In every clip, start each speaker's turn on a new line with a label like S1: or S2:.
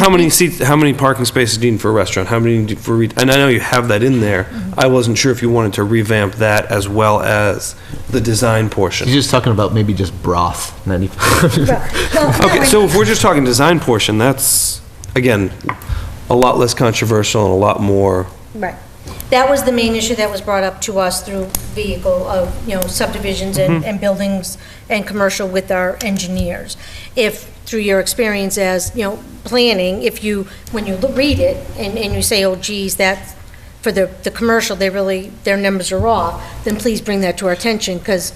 S1: How many seats, how many parking spaces do you need for a restaurant? How many do you- for, re- and I know you have that in there.
S2: Mm-hmm.
S1: I wasn't sure if you wanted to revamp that as well as the design portion.
S3: He's just talking about maybe just broth. And then he-
S1: Okay, so if we're just talking design portion, that's, again, a lot less controversial and a lot more,
S2: Right. That was the main issue that was brought up to us through vehicle of, you know, subdivisions
S1: Mm-hmm.
S2: and, and buildings and commercial with our engineers. If, through your experience as, you know, planning, if you, when you lo- read it and, and you say, oh geez, that, for the, the commercial, they really, their numbers are off, then please bring that to our attention, because,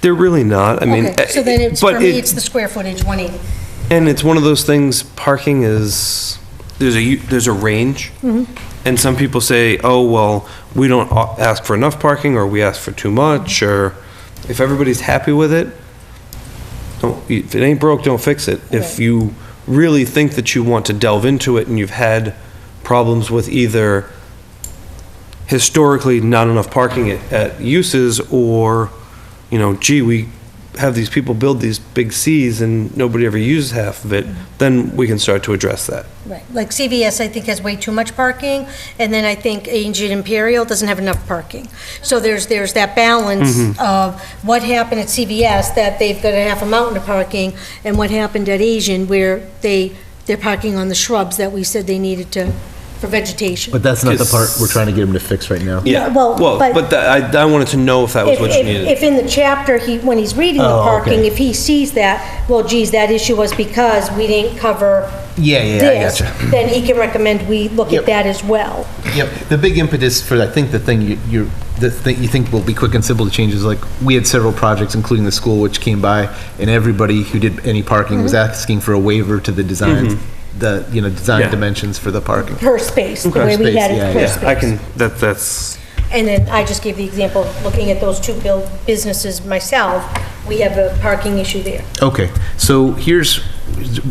S1: they're really not, I mean. uh,
S2: okay, so then it's,
S1: but
S2: for me,
S1: it-
S2: it's the square footage, 180.
S1: And it's one of those things, parking is, there's a, u- there's a range. And some people say, oh, well, we don't a- ask for enough parking, or we ask for too much, or if everybody's happy with it, don't, if it ain't broke, don't fix it. If
S2: Right.
S1: you really think that you want to delve into it and you've had problems with either historically not enough parking at, at uses, or, you know, gee, we have these people build these big Cs and nobody ever uses half of it, then we can start to address that.
S2: Right, like CVS, I think, has way too much parking, and then I think Agent Imperial doesn't have enough parking. So there's, there's that balance
S1: Mm-hmm.
S2: of what happened at CVS, that they've got a half a mountain of parking, and what happened at Asian, where they, they're parking on the shrubs that we said they needed to, for vegetation.
S3: but that's not the part we're trying to get him to fix right now.
S2: Yeah, well,
S1: Well,
S2: but-
S1: but that- I, I wanted to know if that was
S2: If,
S1: what you
S2: if,
S1: needed.
S2: if in the chapter, he, when he's reading the
S3: Oh,
S2: parking,
S3: okay.
S2: if he sees that, well, geez, that issue was because we didn't cover
S3: Yeah,
S2: this, then he can recommend we look at
S3: Yep.
S2: that as well.
S3: Yep. The big impetus for, I think, the thing you, you're, the thing you think will be quick and simple to change is like, we had several projects, including the school, which came by, and everybody who did any parking was
S2: Mm-hmm.
S3: asking for a waiver to the design, the, you know,
S1: Yeah.
S3: design dimensions for the parking.
S2: per space, the way we
S3: space,
S2: had it
S3: yeah,
S2: per
S1: Yeah, I
S2: space.
S1: can, that, that's,
S2: And then I just gave the example, of looking at those two build businesses myself, we have a parking issue there.
S3: Okay, so here's,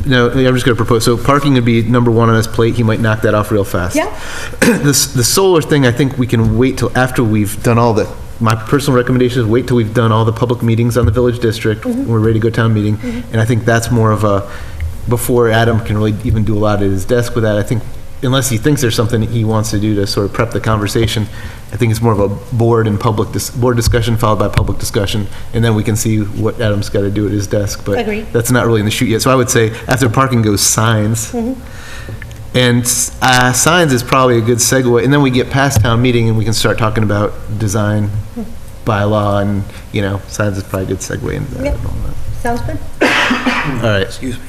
S3: no, I'm just gonna propose, so parking would be number one on his plate, he might knock that off real fast.
S2: Yeah.
S3: This, the solar thing, I think we can wait till after we've done all the, my personal recommendation is wait till we've done all the public meetings on the village district, when we're ready to go town meeting, and I think that's more of a, before Adam can really even do a lot at his desk with that, I think, unless he thinks there's something he wants to do to sort of prep the conversation, I think it's more of a board and public, dis- board discussion followed by public discussion, and then we can see what Adam's gotta do at his desk, but
S2: Agreed.
S3: that's not really in the shoot yet. So I would say after parking goes signs. And uh, signs is probably a good segue. And then we get past town meeting and we can start talking about design by law and, you know, signs is probably a good segue into that.
S2: Yep. Sounds good.
S3: All right.
S1: excuse me.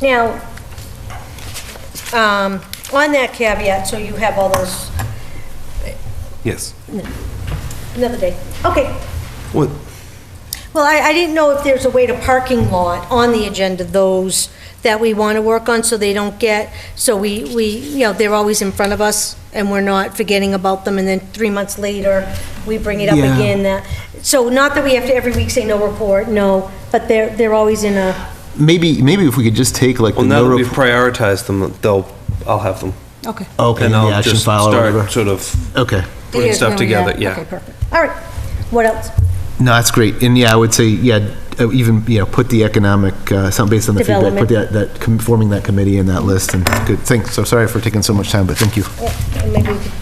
S2: Now, um, on that caveat, so you have all those,
S1: Yes.
S2: another day. Okay,
S1: What,
S2: well, I, I didn't know if there's a way to parking lot on the agenda, those that we want to work on, so they don't get, so we, we, you know, they're always in front of us, and we're not forgetting about them, and then three months later, we bring it up
S3: Yeah.
S2: again, that, so not that we have to every week say no report, no, but they're, they're always in a,
S3: Maybe, maybe if we could just take like the
S1: well, now
S3: no
S1: that we've
S3: report.
S1: prioritized them, they'll, I'll have them.
S2: okay.
S3: Okay,
S1: And
S3: the
S1: I'll
S3: action
S1: just
S3: file or
S1: start
S3: whatever.
S1: sort of
S3: Okay.
S1: putting stuff together,
S2: Okay,
S1: yeah.
S2: perfect. All right, what else?
S3: No, that's great. And yeah, I would say, yeah, uh, even, you know, put the economic, uh, something based on the feedback, put
S2: Development.
S3: that, that, com- forming that committee and that list and good. Thanks. So sorry for taking so much time, but thank you.
S2: Yeah, and Maybe we could,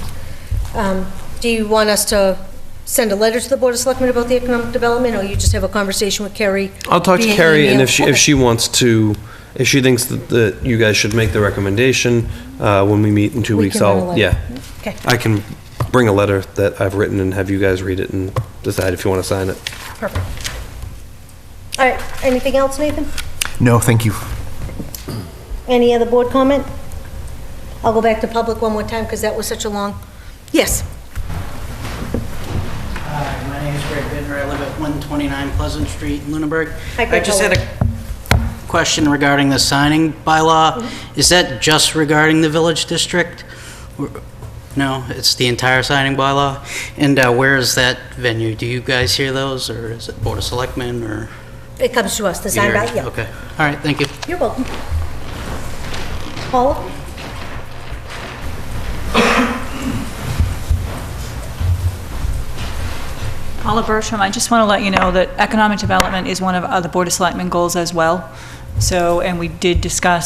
S2: um, do you want us to send a letter to the Board of Selectmen about the economic development, or you just have a conversation with Carrie?
S1: I'll talk to
S2: via
S1: Carrie, and
S2: email?
S1: if she, if
S2: Okay.
S1: she wants to, if she thinks that, that you guys should make the recommendation, uh, when we meet in two
S2: We
S1: weeks,
S2: can write a
S1: I'll,
S2: letter.
S1: yeah.
S2: Okay.
S1: I can bring a letter that I've written and have you guys read it and decide if you want to sign it.
S2: Perfect. All right, anything else, Nathan?
S3: No, thank you.
S2: Any other board comment? I'll go back to public one more time, because that was such a long, yes.
S4: Hi, my name is Greg Binder. I live at 129 Pleasant Street in Lunenburg.
S2: Hi, Greg,
S4: I just
S2: how
S4: had a question regarding the signing bylaw.
S2: Mm-hmm.
S4: Is that just regarding the village district? Or- No, it's the entire signing bylaw? And uh, where is that venue? Do you guys hear those, or is it Board of Selectmen, or?
S2: It comes to us, the sign by, yeah.
S4: Okay, all right, thank you.
S2: You're welcome. Paula?
S5: Paula Bertram, I just want to let you know that economic development is one of uh, the Board of Selectmen goals as well. So, and we did discuss